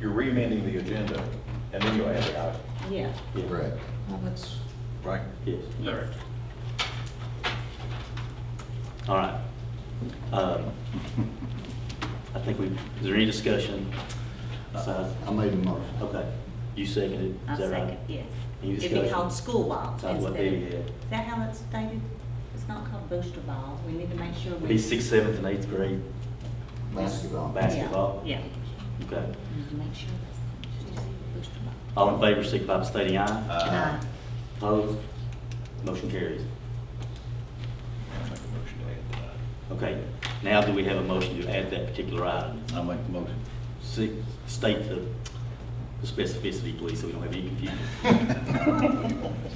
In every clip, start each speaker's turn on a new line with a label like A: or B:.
A: you're remanding the agenda, and then you add the item.
B: Yeah.
C: Correct.
D: Well, that's,
C: Right.
E: Yes.
B: Yes.
E: All right. Um, I think we, is there any discussion? besides-
C: I made a motion.
E: Okay, you seconded,
B: I
E: is that
B: second,
E: right?
B: yes.
E: Any
B: It'd be
E: discussion?
B: called school ball
E: That's what they
B: instead.
E: did.
B: Is that how it's stated? It's not called booster ball. We need to make sure we.
E: Be sixth, seventh, and eighth grade
C: Basketball.
B: Yeah,
E: basketball?
B: Yeah.
E: Okay.
B: We need to make sure that's, booster ball. Uh,
E: All in favor, signify by stating aye.
A: Uh,
B: Aye.
E: Opposed? Motion carries.
A: I'll make a motion to add that item.
E: Okay, now do we have a motion to add that particular item?
A: I'll make the motion.
E: Si- State the the specificity, please, so we don't have any confusion.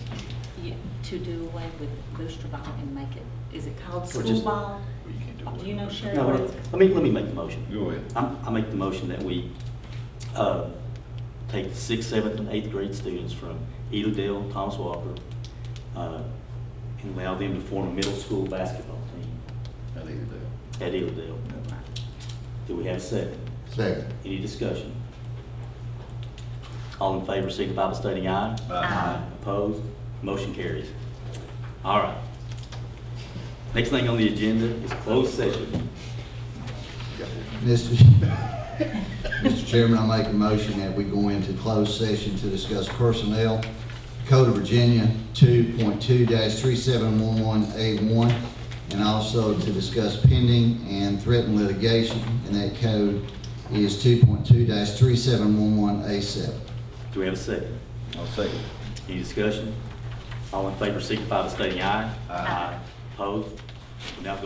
B: Yeah, to do away with booster ball and make it, is it called
E: Or
B: school
E: just-
B: ball?
A: Well, you can't do it.
B: Do you know, Sherry,
E: No,
B: what
E: no,
B: it's?
E: let me, let me make the motion.
A: Go ahead.
E: I'm- I make the motion that we uh, take the sixth, seventh, and eighth grade students from Edendale, Thomas Walker, uh, and allow them to form a middle school basketball team
A: I think you do.
E: at Edendale. Do we have a second?
C: Second.
E: Any discussion? All in favor, signify by stating aye.
A: Aye.
E: Uh-huh. Opposed? Motion carries. All right. Next thing on the agenda is closed session.
C: Mr. Mr. Chairman, I make a motion that we go into closed session to discuss personnel. Code of Virginia two point two three seven one one eight one, and also to discuss pending and threatened litigation, and that code is two point two three seven one one eight seven.
E: Do we have a second?
A: I'll second.
E: Any discussion? All in favor, signify by stating aye.
A: Aye.
E: Opposed? We Now go